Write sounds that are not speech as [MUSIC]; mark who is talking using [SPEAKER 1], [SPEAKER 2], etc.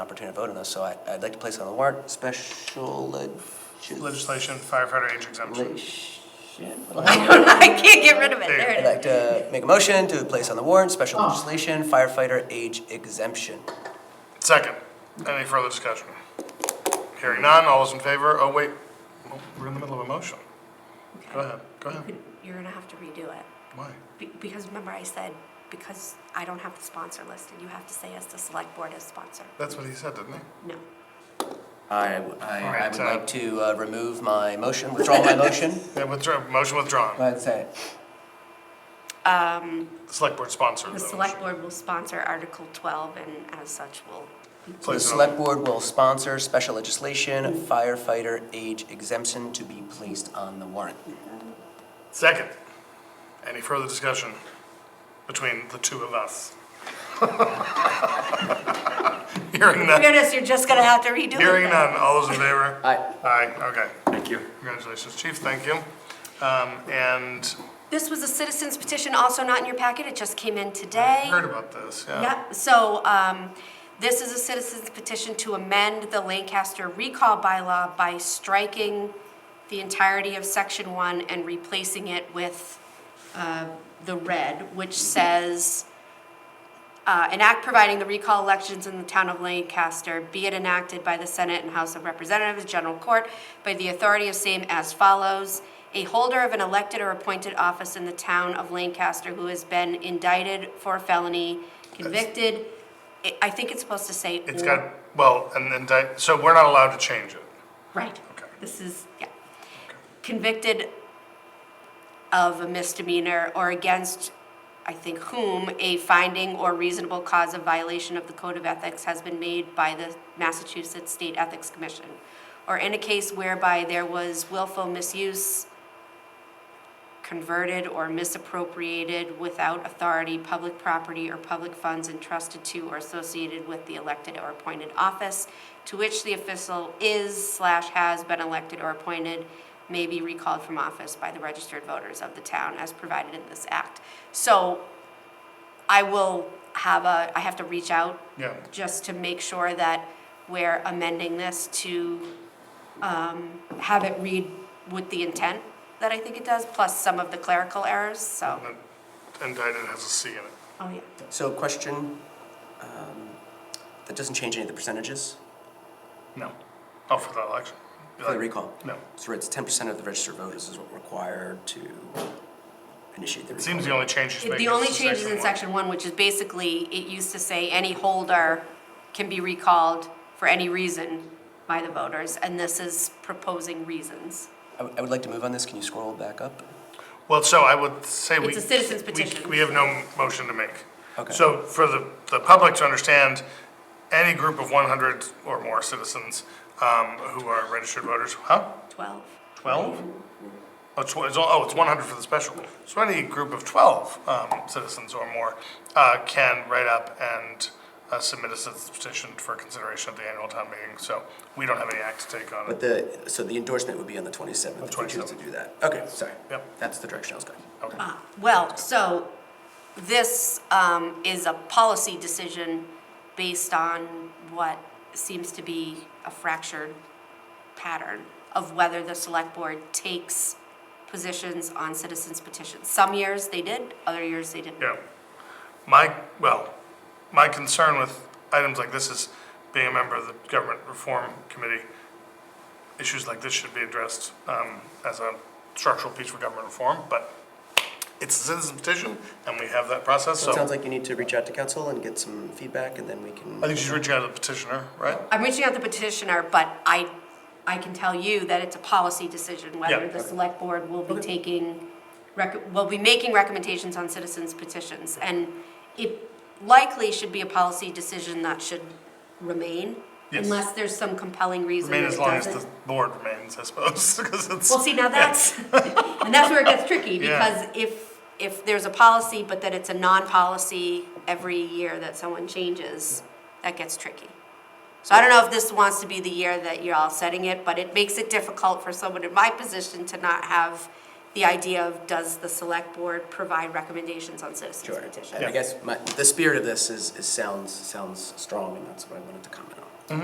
[SPEAKER 1] opportunity to vote on this, so I, I'd like to place on the warrant, special legislation.
[SPEAKER 2] Legislation, firefighter age exemption.
[SPEAKER 1] Well, hang on.
[SPEAKER 3] [LAUGHS] I can't get rid of it. There
[SPEAKER 1] I'd
[SPEAKER 3] it is.
[SPEAKER 1] like to make a motion to place on the warrant, special
[SPEAKER 2] Oh.
[SPEAKER 1] legislation, firefighter age exemption.
[SPEAKER 2] Second, any further discussion? Hearing none, all those in favor, oh wait, Well, we're in the middle of a motion. Go ahead, go ahead.
[SPEAKER 3] You're gonna have to redo it,
[SPEAKER 2] Why?
[SPEAKER 3] Be- because remember I said, because I don't have the sponsor listed, you have to say as the select board as sponsor.
[SPEAKER 2] That's what he said, didn't he?
[SPEAKER 3] No.
[SPEAKER 1] I, w- I- I
[SPEAKER 2] Alright,
[SPEAKER 1] would
[SPEAKER 2] so-
[SPEAKER 1] like to uh, remove my motion, withdraw [LAUGHS] my motion.
[SPEAKER 2] Yeah, withdraw, motion
[SPEAKER 1] Go
[SPEAKER 2] withdrawn.
[SPEAKER 1] ahead and say it.
[SPEAKER 2] The select board sponsored the
[SPEAKER 3] The select
[SPEAKER 2] motion.
[SPEAKER 3] board will sponsor Article 12 and as such will,
[SPEAKER 1] So the
[SPEAKER 2] Place it on-
[SPEAKER 1] select board will sponsor special legislation, firefighter age exemption to be placed on the warrant.
[SPEAKER 2] Second, any further discussion between the two of us? [LAUGHS] Hearing
[SPEAKER 3] in
[SPEAKER 2] none,
[SPEAKER 3] fairness, you're just gonna have to redo it.
[SPEAKER 2] hearing
[SPEAKER 3] then.
[SPEAKER 2] none, all those in favor?
[SPEAKER 1] Aye.
[SPEAKER 2] Aye, okay.
[SPEAKER 4] Thank you.
[SPEAKER 2] Congratulations, chief, thank you. Um, and
[SPEAKER 3] This was a citizen's petition, also not in your packet, it just came in today.
[SPEAKER 2] heard about this, yeah.
[SPEAKER 3] Yep, so, um, this is a citizen's petition to amend the Lancaster recall bylaw by striking the entirety of section one and replacing it with, uh, the red, which says, uh, an act providing the recall elections in the town of Lancaster be it enacted by the Senate and House of Representatives, General Court, by the authority of same as follows. A holder of an elected or appointed office in the town of Lancaster who has been indicted for a felony, convicted, I- I think it's supposed to say.
[SPEAKER 2] It's
[SPEAKER 3] or-
[SPEAKER 2] got, well, and then, di- so we're not allowed to change it.
[SPEAKER 3] Right.
[SPEAKER 2] Okay.
[SPEAKER 3] This is, yeah. Convicted of a misdemeanor or against, I think, whom a finding or reasonable cause of violation of the Code of Ethics has been made by the Massachusetts State Ethics Commission, or in a case whereby there was willful misuse, converted or misappropriated without authority, public property or public funds entrusted to or associated with the elected or appointed office to which the official is slash has been elected or appointed may be recalled from office by the registered voters of the town as provided in this act. So I will have a, I have to reach out
[SPEAKER 2] Yeah.
[SPEAKER 3] just to make sure that we're amending this to um, have it read with the intent that I think it does, plus some of the clerical errors, so,
[SPEAKER 2] And Indicted has a C in it.
[SPEAKER 3] oh yeah.
[SPEAKER 1] So question, um, that doesn't change any of the percentages
[SPEAKER 2] No. Oh, for that election?
[SPEAKER 1] for the recall?
[SPEAKER 2] No.
[SPEAKER 1] So it's ten percent of the registered voters is what required to initiate the
[SPEAKER 2] It
[SPEAKER 1] recall.
[SPEAKER 2] seems the only change he's making
[SPEAKER 3] The
[SPEAKER 2] is
[SPEAKER 3] only
[SPEAKER 2] to
[SPEAKER 3] change is in
[SPEAKER 2] one.
[SPEAKER 3] section one, which is basically, it used to say any holder can be recalled for any reason by the voters, and this is proposing reasons.
[SPEAKER 1] I would- I would like to move on this, can you scroll back up?
[SPEAKER 2] Well, so I would say we.
[SPEAKER 3] It's a citizen's
[SPEAKER 2] we-
[SPEAKER 3] petition.
[SPEAKER 2] We have no motion to make.
[SPEAKER 1] Okay.
[SPEAKER 2] So for the, the public to understand, any group of one hundred or more citizens, um, who are registered voters, huh?
[SPEAKER 3] Twelve.
[SPEAKER 2] Twelve? Oh, it's, it's, oh, it's one hundred for the special. So any group of twelve, um, citizens or more, uh, can write up and, uh, submit a citizen's petition for consideration at the annual town meeting. So we don't have any act to take on it.
[SPEAKER 1] But the, so the endorsement would be on the twenty-seventh, if we choose to
[SPEAKER 2] 27th.
[SPEAKER 1] do that. Okay, sorry.
[SPEAKER 2] Yep.
[SPEAKER 1] That's the direction I was going.
[SPEAKER 3] Well, so this um, is a policy decision based on what seems to be a fractured pattern of whether the select board takes positions on citizens petitions. Some years they did, other years they didn't.
[SPEAKER 2] Yeah. My, well, my concern with items like this is, being a member of the Government Reform Committee, issues like this should be addressed um, as a structural piece for government reform, but it's a citizen petition, and we have that process,
[SPEAKER 1] So
[SPEAKER 2] so
[SPEAKER 1] it sounds
[SPEAKER 2] I
[SPEAKER 1] like you need to reach out to council and get some feedback, and then we can.
[SPEAKER 2] think she's reaching out to the petitioner, right?
[SPEAKER 3] I'm reaching out to petitioner, but I, I can tell you that it's a policy decision whether
[SPEAKER 2] Yeah.
[SPEAKER 3] the select board will be taking, rec- will be making recommendations on citizens petitions. And it likely should be a policy decision that should remain,
[SPEAKER 2] Yes.
[SPEAKER 3] unless there's some compelling reason
[SPEAKER 2] Remain
[SPEAKER 3] that
[SPEAKER 2] as
[SPEAKER 3] it
[SPEAKER 2] long as the
[SPEAKER 3] doesn't.
[SPEAKER 2] board remains, I suppose, [LAUGHS] because it's.
[SPEAKER 3] Well, see, now that's, [LAUGHS] and that's where it gets tricky,
[SPEAKER 2] Yeah.
[SPEAKER 3] because if, if there's a policy, but that it's a non-policy every year that someone changes, that gets tricky. So I don't know if this wants to be the year that you're all setting it, but it makes it difficult for someone in my position to not have the idea of, does the select board provide recommendations on citizens
[SPEAKER 1] Sure.
[SPEAKER 3] petitions?
[SPEAKER 1] And I guess my, the spirit of this is, is sounds, sounds strong, and that's what I wanted to comment